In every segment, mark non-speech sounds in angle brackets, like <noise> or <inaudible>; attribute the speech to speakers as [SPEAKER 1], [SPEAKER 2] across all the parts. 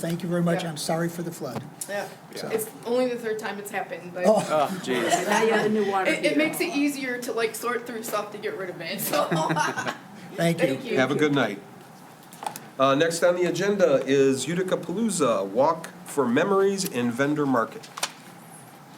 [SPEAKER 1] Thank you very much.
[SPEAKER 2] Yeah.
[SPEAKER 1] I'm sorry for the flood.
[SPEAKER 2] Yeah,
[SPEAKER 1] So-
[SPEAKER 2] it's only the third time it's happened, but
[SPEAKER 1] Oh.
[SPEAKER 3] Oh, jeez.
[SPEAKER 4] Now you have the new water
[SPEAKER 2] it, it
[SPEAKER 4] heater.
[SPEAKER 2] makes it easier to like sort through stuff to get rid of it, <laughs> so.
[SPEAKER 1] Thank you.
[SPEAKER 2] Thank you.
[SPEAKER 5] Have a good night. Uh, Next on the agenda is Utica Palooza, Walk for Memories in Vendor Market.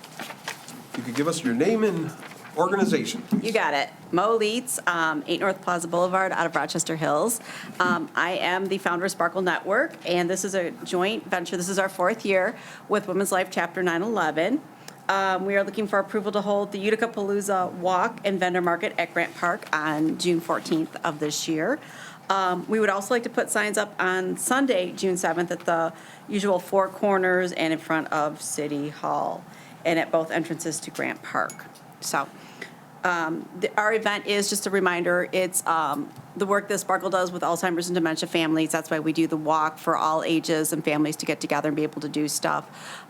[SPEAKER 5] If You could give us your name and organization, please.
[SPEAKER 6] You got it. Mo Leeds, um, 8 North Plaza Boulevard, out of Rochester Hills. Um, I am the founder of Sparkle Network, and this is a joint venture. This is our fourth year with Women's Life Chapter 911. Um, We are looking for approval to hold the Utica Palooza Walk and Vendor Market at Grant Park on June 14th of this year. Um, We would also like to put signs up on Sunday, June 7th, at the usual four corners and in front of City Hall, and at both entrances to Grant Park. So the- our event is, just a reminder, it's um, the work that Sparkle does with Alzheimer's and dementia families. That's why we do the walk for all ages and families to get together and be able to do stuff.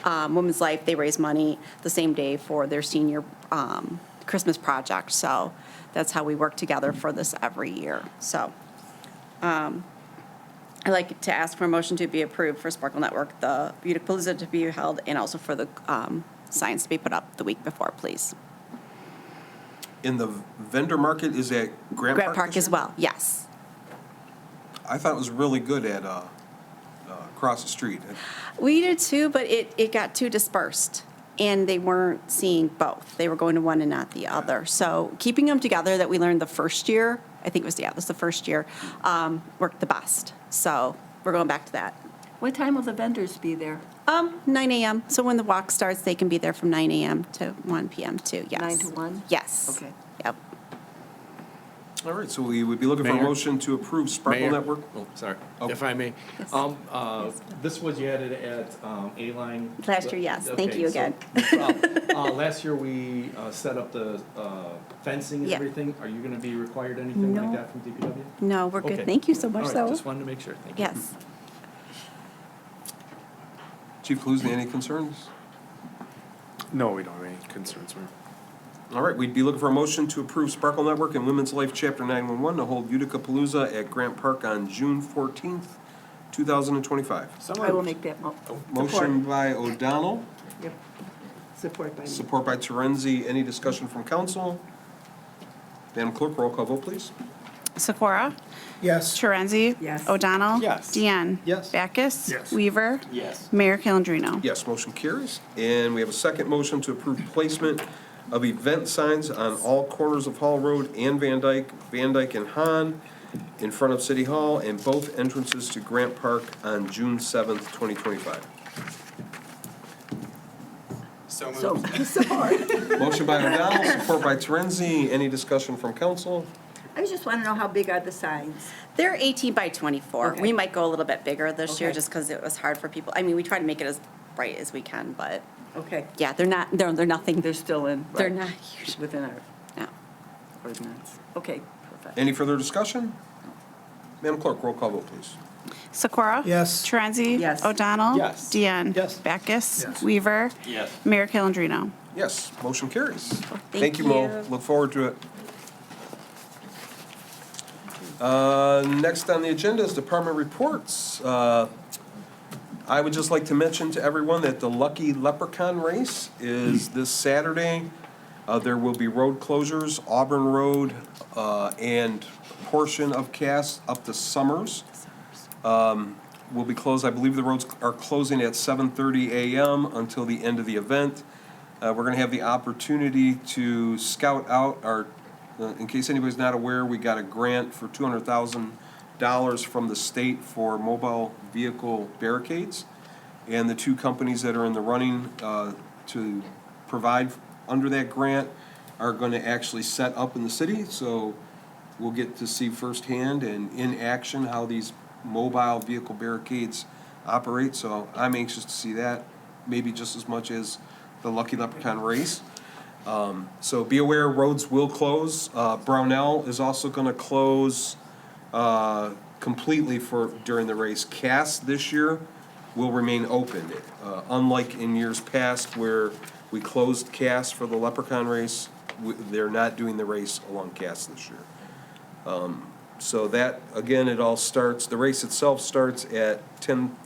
[SPEAKER 6] Um, Women's Life, they raise money the same day for their senior um, Christmas project. So that's how we work together for this every year. So um, I'd like to ask for a motion to be approved for Sparkle Network, the Beauty Palooza to be held, and also for the um, signs to be put up the week before, please.
[SPEAKER 5] And the vendor market is at Grant Park?
[SPEAKER 6] Grant Park
[SPEAKER 5] this
[SPEAKER 6] as
[SPEAKER 5] year?
[SPEAKER 6] well, yes.
[SPEAKER 5] I thought it was really good at, uh, uh, across the street.
[SPEAKER 6] We did too, but it, it got too dispersed and they weren't seeing both. They were going to one and not the other. So keeping them together that we learned the first year, I think it was, yeah, it was the first year, um, worked the best. So we're going back to that.
[SPEAKER 4] What time will the vendors be there?
[SPEAKER 6] Um, 9 a.m. So when the walk starts, they can be there from 9 a.m. to 1 p.m. too. Yes.
[SPEAKER 4] 9 to 1?
[SPEAKER 6] Yes.
[SPEAKER 4] Okay.
[SPEAKER 6] Yep.
[SPEAKER 5] All right, so we would be looking for a
[SPEAKER 3] Mayor?
[SPEAKER 5] motion to approve Sparkle
[SPEAKER 3] Mayor?
[SPEAKER 5] Network.
[SPEAKER 3] Oh, sorry,
[SPEAKER 5] Oh.
[SPEAKER 3] if I may. Um, uh, this was you added at, um, A-line.
[SPEAKER 6] Last year, yes. Thank
[SPEAKER 3] Okay,
[SPEAKER 6] you
[SPEAKER 3] so- <laughs>
[SPEAKER 6] again.
[SPEAKER 3] no problem.
[SPEAKER 6] <laughs>
[SPEAKER 3] Uh, last year, we, uh, set up the, uh, fencing and
[SPEAKER 6] Yeah.
[SPEAKER 3] everything. Are you gonna be required anything like
[SPEAKER 6] No.
[SPEAKER 3] that from DPW?
[SPEAKER 6] No, we're good.
[SPEAKER 3] Okay.
[SPEAKER 6] Thank you so
[SPEAKER 3] All
[SPEAKER 6] much,
[SPEAKER 3] right,
[SPEAKER 6] though.
[SPEAKER 3] Just wanted to make sure, thank you.
[SPEAKER 6] yes.
[SPEAKER 5] Chief Palooza, any concerns?
[SPEAKER 3] No, we don't have any concerns, ma'am.
[SPEAKER 5] All right, we'd be looking for a motion to approve Sparkle Network and Women's Life Chapter 911 to hold Utica Palooza at Grant Park on June 14th, 2025.
[SPEAKER 3] Oh,
[SPEAKER 4] I will make that mo-
[SPEAKER 5] Motion by O'Donnell,
[SPEAKER 4] Yep. Support by me.
[SPEAKER 5] support by Terenzi. Any discussion from council? Madam Clerk, roll call vote, please.
[SPEAKER 7] Sikora?
[SPEAKER 1] Yes,
[SPEAKER 7] Torenzi?
[SPEAKER 4] Yes.
[SPEAKER 7] O'Donnell?
[SPEAKER 3] Yes.
[SPEAKER 7] Deanne?
[SPEAKER 3] Yes.
[SPEAKER 7] Backus?
[SPEAKER 1] Yes.
[SPEAKER 7] Weaver?
[SPEAKER 3] Yes.
[SPEAKER 7] Mayor Calendino?
[SPEAKER 5] Yes, motion carries. And we have a second motion to approve placement of event signs on all corners of Hall Road and Van Dyke, Van Dyke and Han, in front of City Hall, and both entrances to Grant Park on June 7th, 2025.
[SPEAKER 4] So, <laughs> support.
[SPEAKER 5] Motion by O'Donnell, support by Terenzi. Any discussion from council?
[SPEAKER 4] I just want to know how big are the signs?
[SPEAKER 6] They're 18 by 24.
[SPEAKER 4] Okay.
[SPEAKER 6] We might go a little bit bigger this year
[SPEAKER 4] Okay.
[SPEAKER 6] just because it was hard for people. I mean, we try to make it as bright as we can, but
[SPEAKER 4] Okay,
[SPEAKER 6] yeah, they're not, they're, they're nothing.
[SPEAKER 4] they're still in.
[SPEAKER 6] They're
[SPEAKER 4] right,
[SPEAKER 6] not huge.
[SPEAKER 4] Within our
[SPEAKER 6] No.
[SPEAKER 4] ordinance. Okay, perfect.
[SPEAKER 5] Any further discussion? Madam Clerk, roll call vote, please.
[SPEAKER 7] Sikora?
[SPEAKER 1] Yes.
[SPEAKER 7] Torenzi?
[SPEAKER 4] Yes.
[SPEAKER 7] O'Donnell?
[SPEAKER 3] Yes.
[SPEAKER 7] Deanne?
[SPEAKER 1] Yes.
[SPEAKER 7] Backus?
[SPEAKER 1] Yes.
[SPEAKER 7] Weaver?
[SPEAKER 3] Yes.
[SPEAKER 7] Mayor Calendino?
[SPEAKER 5] Yes, motion carries.
[SPEAKER 6] Thank
[SPEAKER 5] you, Mo.
[SPEAKER 6] you.
[SPEAKER 5] Look forward to it. Uh, Next on the agenda is department reports. Uh, I would just like to mention to everyone that the Lucky Leprechaun Race is this Saturday. Uh, There will be road closures, Auburn Road uh, and a portion of Cass up to Summers will be closed. I believe the roads are closing at 7:30 a.m. until the end of the event. Uh, We're going to have the opportunity to scout out our, uh, in case anybody's not aware, we got a grant for $200,000 from the state for mobile vehicle barricades. And the two companies that are in the running uh, to provide under that grant are going to actually set up in the city. So we'll get to see firsthand and in action how these mobile vehicle barricades operate, so I'm anxious to see that, maybe just as much as the Lucky Leprechaun race. Um, so be aware, roads will close. Uh, Brownell is also gonna close, uh, completely for, during the race. Cass this year will remain open, uh, unlike in years past where we closed Cass for the Leprechaun race. We, they're not doing the race along Cass this year. So that, again, it all starts, the race itself starts at ten